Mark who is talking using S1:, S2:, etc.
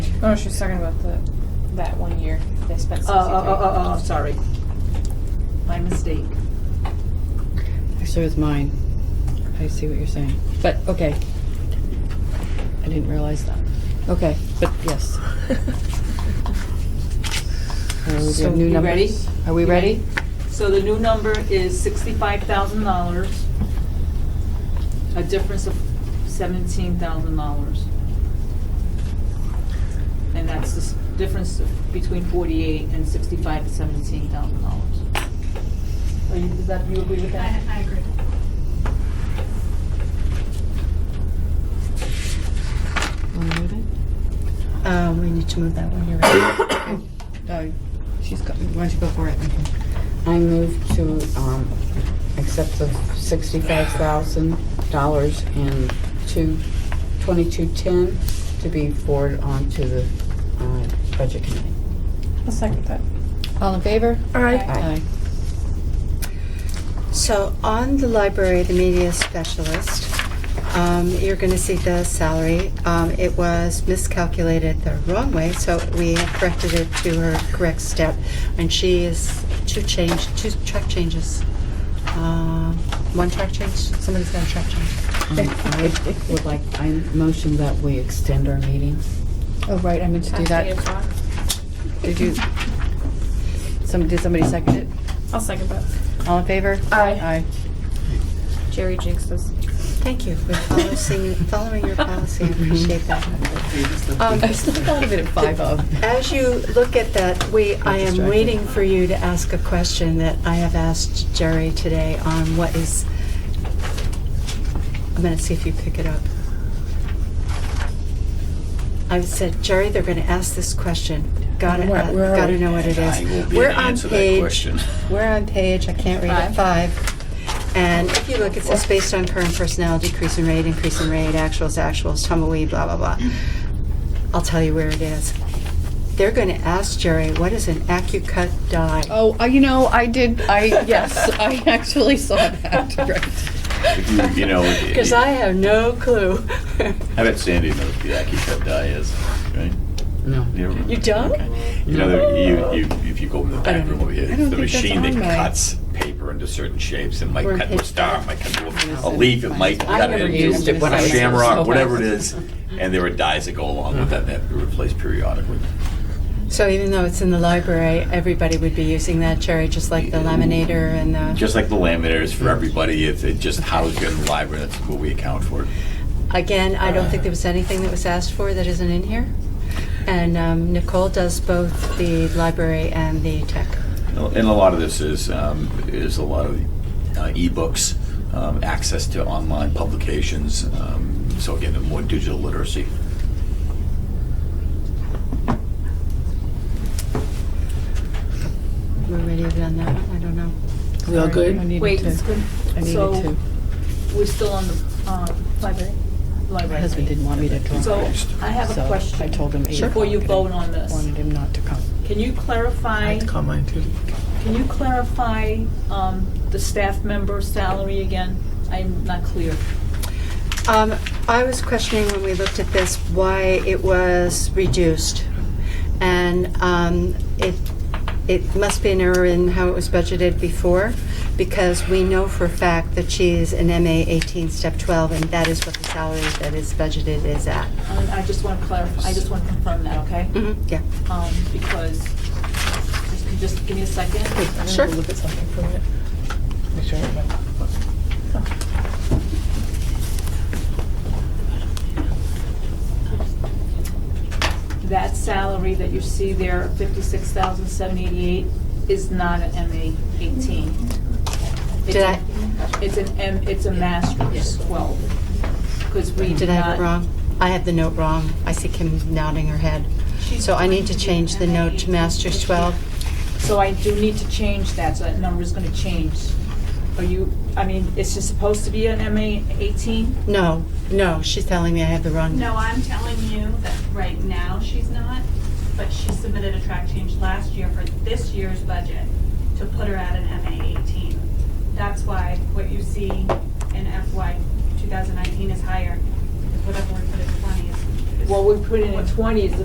S1: Oh, she's talking about the, that one year they spent sixty-three.
S2: Oh, oh, oh, oh, oh, sorry. My mistake.
S3: So is mine. I see what you're saying. But, okay. I didn't realize that. Okay, but yes.
S2: oh,
S3: Are we
S2: So,
S3: doing new
S2: you
S3: numbers?
S2: ready?
S3: Are we
S2: You
S3: ready?
S2: So the new number is sixty-five thousand dollars. A difference of seventeen thousand dollars. And that's the s- difference between forty-eight and sixty-five to seventeen thousand dollars. Are you, does that, you agree with that?
S4: I, I agree.
S3: Want to move it?
S5: Uh,
S6: Um,
S5: we need to move that one, you're right.
S3: Oh, she's got, why don't you go for it?
S6: I move to um, accept the sixty-five thousand dollars and two, twenty-two-ten to be forwarded on to the uh, budget committee.
S1: I'll second that.
S3: All in favor?
S5: All right.
S6: Aye.
S5: So on the library, the media specialist, um, you're going to see the salary. Um, It was miscalculated the wrong way, so we have corrected it to her correct step. And she is two change, two track changes. Um, One track change, somebody's got a track change.
S6: Um, I would like, I motion that we extend our meeting.
S3: Oh, right, I meant to do that. Did you, some, did somebody second it?
S1: I'll second that.
S3: All in favor? Aye. Aye.
S1: Jerry jinxed us.
S5: Thank you for following, following your policy, I appreciate that. Um,
S3: I still thought of it at five oh. of.
S5: As you look at that, we, I am
S3: distracted.
S5: waiting for you to ask a question that I have asked Jerry today on what is, I'm gonna see if you pick it up. I said, Jerry, they're gonna ask this question. Gotta,
S3: Where-
S5: uh,
S3: where are
S5: gotta
S3: we?
S5: know what it
S7: I will
S5: is.
S7: be
S5: We're
S7: able to
S5: on
S7: answer that
S5: page-
S7: question.
S5: We're on page, I can't read it, five. And if you look, it says based on current personnel, decrease in rate, increase in rate, actuals, actuals, tumbleweed, blah, blah, blah. I'll tell you where it is. They're going to ask Jerry, what is an AccuCut die?
S3: Oh, uh, you know, I did, I, yes, I actually saw that, right.
S7: If you, you know, if-
S5: Because I have no clue.
S7: I bet Sandy knows the Aki Cup die is, right?
S6: No.
S7: You
S5: You don't?
S7: Okay. You know, there, you, you, if you go in the back
S3: don't-
S7: room over here,
S3: I don't
S7: the
S3: think that's
S7: machine that
S3: on my-
S7: cuts paper into certain shapes and might
S5: We're
S7: cut to a
S5: page
S7: star,
S5: five.
S7: might cut to
S3: Yeah.
S7: a- a leaf, it might
S3: I
S7: cut
S3: never
S7: into
S3: used it when I
S7: a
S3: was so
S7: shamrock, whatever it
S3: bad.
S7: is. And there are dies that go along with that that are replaced periodically.
S5: So even though it's in the library, everybody would be using that, Jerry, just like the laminator and the,
S7: Just like the laminators for everybody, it's it just housed in the library, that's what we account for.
S5: again, I don't think there was anything that was asked for that isn't in here. And um, Nicole does both the library and the tech.
S7: And a lot of this is, um, is a lot of uh, ebooks, um, access to online publications. Um, so again, more digital literacy.
S5: We're ready to on that one, I don't know.
S6: We all
S3: I
S6: good?
S3: needed
S2: Wait, it's
S3: to,
S2: good.
S3: I needed
S2: So
S3: to.
S2: we're still on the, um,
S1: Library.
S3: My
S2: library.
S3: husband didn't want me to drop.
S2: So
S3: it,
S2: I have
S3: so
S2: a question.
S3: I told him eight
S2: Before you
S3: o'clock
S2: vote
S3: and
S2: on this.
S3: Wanted him not to come.
S2: Can you clarify,
S8: call mine too.
S2: can you clarify um, the staff member salary again? I'm not clear.
S5: Um, I was questioning when we looked at this why it was reduced. And um, it, it must be an error in how it was budgeted before, because we know for a fact that she's an MA 18, step 12, and that is what the salary that is budgeted is at.
S2: Um, I just want to clarify, I just want to confirm that, okay?
S5: Mhm, Yeah.
S2: Um, Because, just- can you just give me a second.
S5: Sure.
S8: Look at something for a minute. Make sure I remember.
S2: That salary that you see there, 56,788, is not an MA 18. It's
S5: Did
S2: a-
S5: I-
S2: It's an M, it's a master's 12, because we
S5: Did I have it
S2: not-
S5: wrong? I have the note wrong. I see Kim nodding her head. So I need to change the note to master's 12.
S2: So I do need to change that, so that number is gonna change. Are you, I mean, it's just supposed to be an MA 18?
S5: No, no, she's telling me I have the wrong.
S4: No, I'm telling you that right now she's not, but she submitted a track change last year for this year's budget to put her at an MA 18. That's why what you see in FY 2019 is higher, because whatever we put at 20 is. is-
S2: Well, we put in at 20 is the